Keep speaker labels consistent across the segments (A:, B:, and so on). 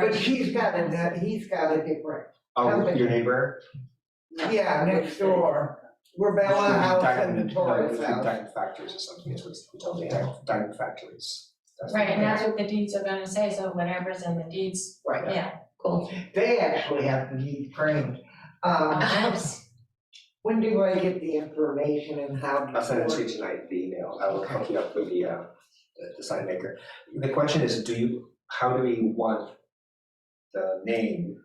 A: But she's got a, he's got a different,
B: Oh, your neighbor?
A: yeah, next door, we're Bella House and the Torres
B: Diamond- Diamond-
A: House.
B: Diamond Factories or something, is what we tell them, Diamond- Diamond Factories. That's-
C: Right, and that's what the deeds are gonna say, so whatever's in the deeds,
A: Right,
C: yeah.
A: they actually have the deed framed.
D: Uh,
A: Um, when do I get the information and how? do
B: I'll send it to
A: work?
B: you tonight, the email, I will hook you up with the, uh, the- the sign maker. The question is, do you, how do we want the name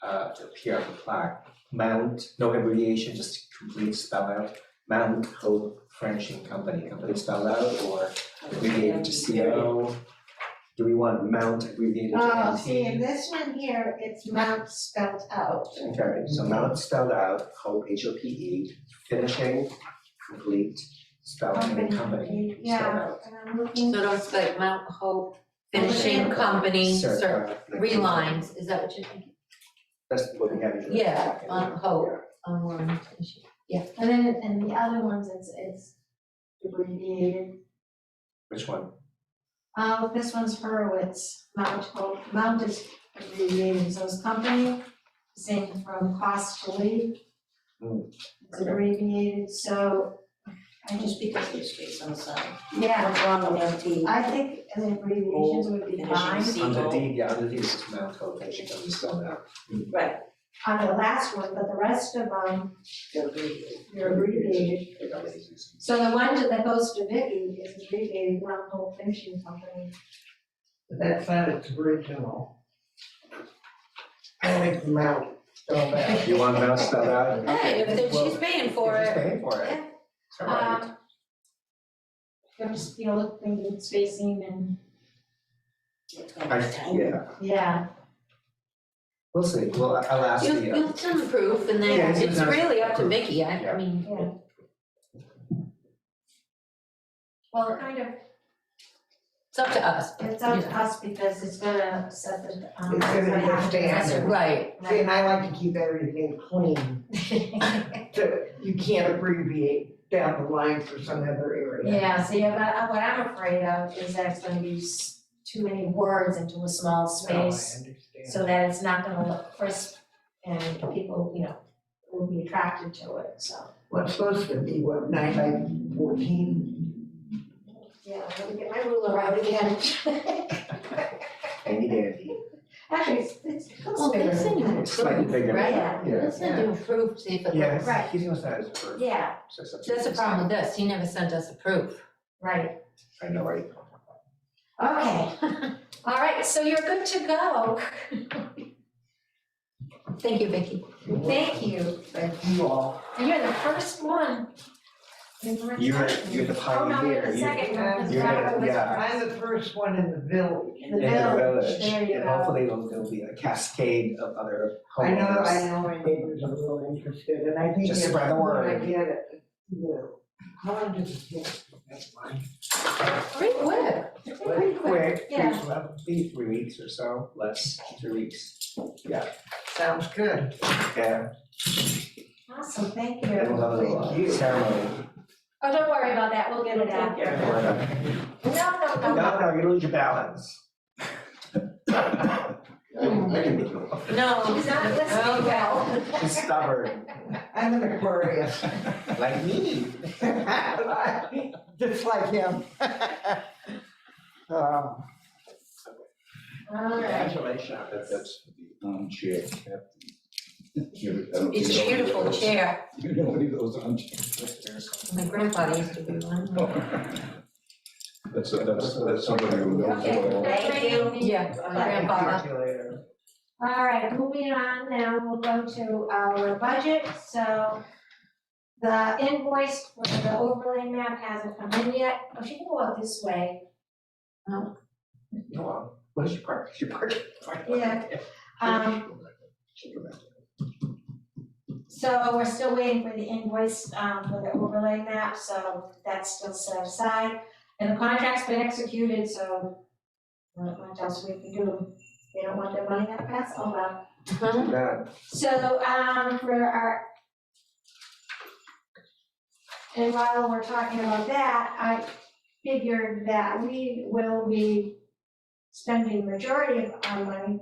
B: uh, to appear on the plaque? Mount, no abbreviation, just complete spell out, Mount Hope Furnishing Company, complete spell out, or abbreviated to C O? Do we want Mount abbreviated to
D: Oh,
B: M
D: see,
B: Uh, T?
D: in this one here, it's Mount spelled out.
B: Okay, so Mount spelled out, Hope, H O P E, finishing, complete, spell and company, spelled
D: Yeah,
B: out.
D: and I'm looking.
E: So it's like Mount Hope Finishing Company, sir,
B: Circa.
E: three lines, is that what you're thinking?
B: E. That's what we have in the
E: Yeah,
B: packet,
E: on Hope,
B: yeah.
E: on one, issue.
D: And then, and the other ones, it's, it's abbreviated.
B: Which one?
D: Oh, this one's Hurwitz, Mount Hope, Mount is abbreviated, so it's company, same from cost to lead.
B: Hmm,
D: It's
B: okay.
D: abbreviated, so I just,
F: Because the streets on the side.
D: yeah,
F: What's wrong with empty?
D: I think the abbreviations would be
F: Finishing
D: fine.
B: On the
F: seagull.
B: deed, yeah, on the deed, it's Mount Hope, and she comes spelled out.
D: on the last one, but the rest of them, they're abbreviated.
B: Okay, that was easy.
D: So the one that goes to Vicky is abbreviated Mount Hope Finishing Company.
A: That's not its original. I like the mountain so bad.
B: You want Mount spelled out?
E: Hey, if they're-
B: Well,
E: she's paying for
B: She's
E: it,
B: paying for it.
D: Yeah.
B: All right.
D: Um, I'm just, you know, looking at spacing and,
B: I, yeah,
D: yeah,
B: we'll see, well, I- I'll ask
E: you'll,
B: the, uh,
E: you'll send proof and
B: Yeah,
E: then
B: it's
E: it's
B: not-
E: really up to
B: proof.
E: Vicky, I,
B: Yeah.
E: I mean,
D: yeah. Well, it kind of,
E: it's up to us.
D: it's up to us because it's gonna set the, um.
A: It's gonna
D: what happens.
A: understand.
E: Right,
A: See, and I like to keep everything clean, so you can't abbreviate down the line for some other area.
D: Yeah, see, but I- what I'm afraid of is that it's gonna be s- too many words into a small
A: No, Oh, I
D: space.
A: understand.
D: so that it's not gonna look crisp and people, you know, will be attracted to it, so.
A: Well, it's supposed to be, what, nine by fourteen?
D: Yeah, let me get my ruler out again.
B: Andy Dandy,
D: Actually, it's, it's, it looks
E: well,
D: bigger
E: they'll
D: than
E: send you
D: that.
E: a
B: it's slightly
E: proof,
B: bigger.
E: right?
D: Yeah.
B: Yeah.
E: They'll send you a proof, see if it looks.
B: Yeah,
D: Right.
B: he's gonna sign his first.
D: Yeah,
B: So it's up to
E: That's the
B: you.
E: problem with this, he never sent us a proof.
D: right,
B: I know, right?
D: okay, all right, so you're good to go,
E: Thank you, Vicky.
D: thank you,
A: Thank you all.
D: and you're the first one. You're,
B: You're, you're the pioneer,
D: Oh, no, you're the
B: you-
D: second one, 'cause
B: you're the-
D: Robert was
B: yeah.
D: first.
A: I'm the first one in the village.
D: In the
B: in the
D: village, there
B: village,
D: you
B: and
D: go.
B: hopefully there'll, there'll be a cascade of other
A: I know,
B: homeowners.
A: I know my neighbors are real interested, and I think.
B: Just
A: if-
B: spread the word.
A: when I get it, you know, how long does it take? That's fine.
E: Great work.
B: Pretty quick,
D: Yeah.
B: three- well, maybe three weeks or so, less, three weeks.
A: Sounds good.
B: Yeah,
D: Awesome, thank
B: and
D: you.
B: we'll have a little
A: Thank you.
B: uh, ceremony.
D: Oh, don't worry about that, we'll get it out.
B: No,
D: No, no, no,
B: no, you lose your balance. I can, I can make you up.
E: No.
D: he's not listening well.
B: She's stubborn,
A: I'm an Aquarius.
B: like me.
A: Just like him. Um,
D: All right.
B: Congratulations.
G: That's, that's the armchair captain. You- I don't
E: It's a
G: think you know
E: beautiful
G: any of those-
E: chair,
G: You know any of those armchairs?
E: my grandfather used to be one.
G: That's, that's, that's somebody who knows
D: Okay,
G: it all.
D: thank you.
E: Yeah, my grandfather.
B: See you later.
D: All right, moving on now, we'll go to our budget, so the invoice for the overlay map hasn't come in yet, oh, she can go out this way.
B: No, uh, what is your park, your park?
D: Yeah. Um, so we're still waiting for the invoice, um, for the overlay map, so that's still set aside. And the contract's been executed, so not much else we can do, they don't want their money that fast, oh well.
B: That,
D: So, um, for our. And while we're talking about that, I figured that we will be spending majority of our money